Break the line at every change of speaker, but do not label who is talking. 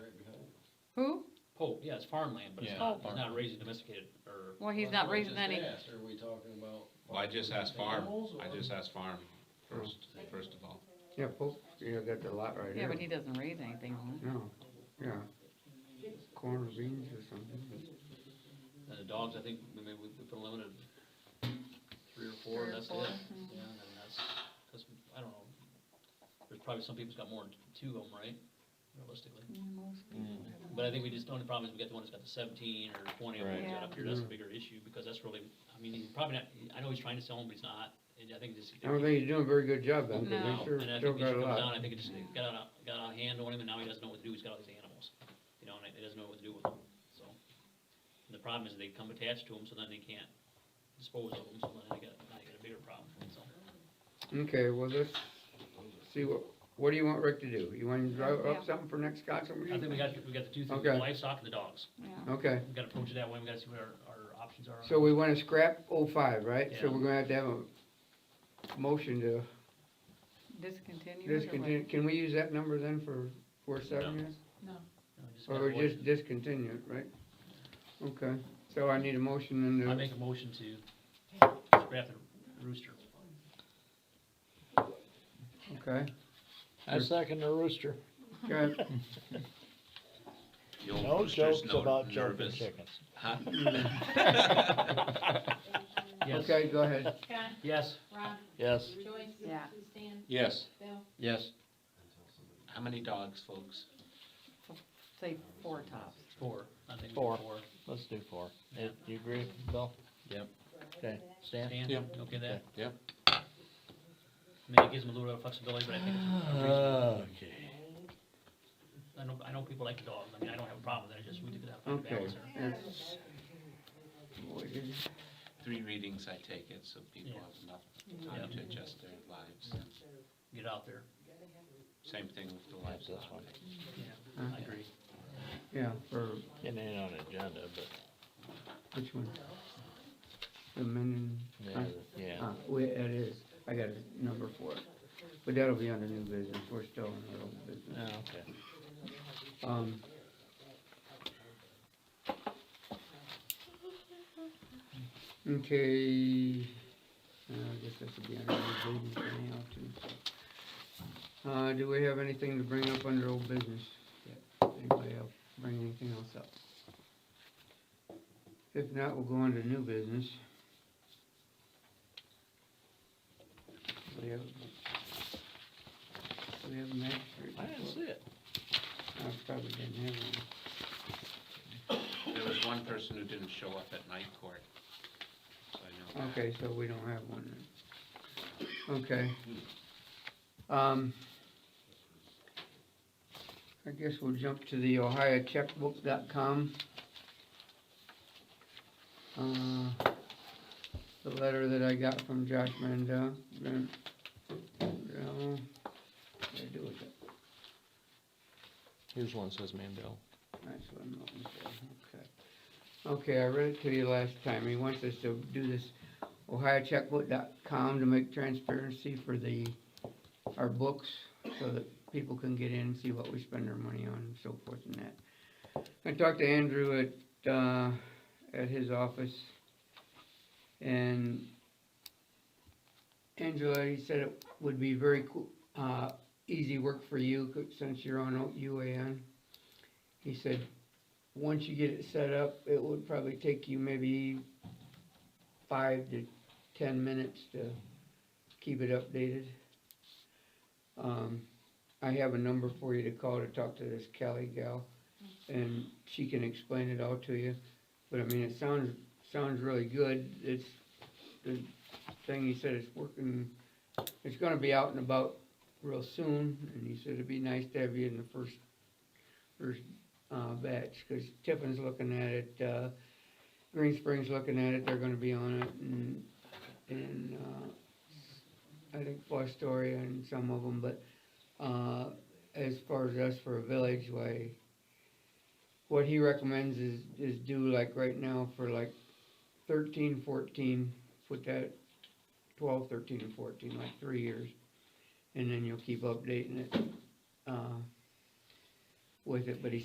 Oh, yeah, it's farmland, but it's
Yeah,
Oh,
not, he's
farmland.
not raising domesticated or.
Well, he's not raising any,
Are we talking about?
Well, I just asked farm,
Animals
I
or-
just asked farm first, first of all.
Yeah, both, yeah, got the lot right
yeah,
here.
but he doesn't raise anything on it.
No, yeah. Corn or beans or something.
And the dogs, I think, maybe we we put a limit of three or four,
Three or
that's it.
four, mhm.
Yeah, and then that's, that's, I don't know, there's probably some people's got more than two of them, right, realistically?
Mm-hmm.
But I think we just, the only problem is we got the one that's got the seventeen or twenty of them
Right.
got up here, that's a
Yeah.
bigger issue, because that's really, I mean, he's probably not, I know he's trying to sell them, but he's not, and I think just.
I don't think he's doing a very good job then,
No.
because they sure
And I
still
think he
got
should
a
come down, I
lot.
think it just got out, of- got out of hand on him, and now he doesn't know what to do, he's got all these animals, you know, and he doesn't know what to do with them, so. And the problem is they come attached to him, so then they can't dispose of them, so then they got, now you got a bigger problem, so.
Okay, well, let's see, what, what do you want Rick to do? You want him to draw
Yeah.
up something for next council
I think we
meeting?
got, we got the two things,
Okay.
the livestock and the dogs,
Yeah.
Okay,
we gotta approach it that way, we gotta see what our, our options are.
so we wanna scrap oh five, right? So
Yeah.
we're gonna have to have a motion to
Discontinue it or what?
discontinue, can we use that number then for four seven years?
You know, just gotta
Or
avoid-
just discontinue it, right? Okay, so I need a motion and
I
a
make a motion to scrap the rooster.
okay,
I second the rooster.
okay.
The old
No
rooster's
jokes
no-
about jumping
nervous.
chickens.
Huh?
Yes,
Okay, go ahead.
Scott,
yes,
Ron,
Yes,
Joyce.
Yeah.
Stan,
Yes,
Bill,
yes. How many dogs, folks?
Say four tops.
four, I think
Four.
four.
let's do four. Eh, Do you agree, Bill?
Yep.
Okay, Stan?
Stan,
Yep.
okay that,
Yep.
I mean, it gives them a little bit of flexibility, but I think it's
Uh,
reasonable.
Okay.
I know, I know people like the dogs, I mean, I don't have a problem with that, I just, we did that fine
Okay.
balance there.
that's-
Three readings, I take it, so people
Yeah.
have enough time to adjust their lives.
Get out there,
Same thing with the
That's this
livestock.
one.
yeah, I agree.
Yeah, for
It ain't on agenda, but,
which one? The men
yeah,
and,
yeah.
ah, wait, it is, I got a number for it. But that'll be under new business, we're still in our old
Oh,
business.
okay.
Um. Okay, uh, I guess that should be under new business anyhow too. Uh, do we have anything to bring up under old business? yet? Anybody else bring anything else up? If not, we'll go on to new business. We have, we have a magistrate.
I didn't
report.
see it.
I probably didn't have one.
There was one person who didn't show up at night court, so I know that.
Okay, so we don't have one then. Okay. Um, I guess we'll jump to the ohiocheckbook.com. Uh, the letter that I got from Josh Mandel, Mandel, what did I do with it?
Here's one says Mandel.
That's what I'm looking for, okay. Okay, I read it to you last time, he wants us to do this ohiocheckbook.com to make transparency for the, our books, so that people can get in and see what we spend our money on and so forth and that. I talked to Andrew at, uh, at his office, and Angela, he said it would be very cool, uh, easy work for you, 'cause since you're on O- UAN. He said, once you get it set up, it would probably take you maybe five to ten minutes to keep it updated. Um, I have a number for you to call to talk to this Kelly gal, and she can explain it all to you. But I mean, it sounds, sounds really good, it's, the thing he said, it's working, it's gonna be out and about real soon, and he said it'd be nice to have you in the first, first uh, batch, cause Tiffin's looking at it, uh, Green Springs looking at it, they're gonna be on it, and, and, uh, I think Fostoria and some of them, but, uh, as far as us for a village way, what he recommends is, is do like right now for like thirteen, fourteen, put that twelve, thirteen, and fourteen, like three years, and then you'll keep updating it, uh, with it, but he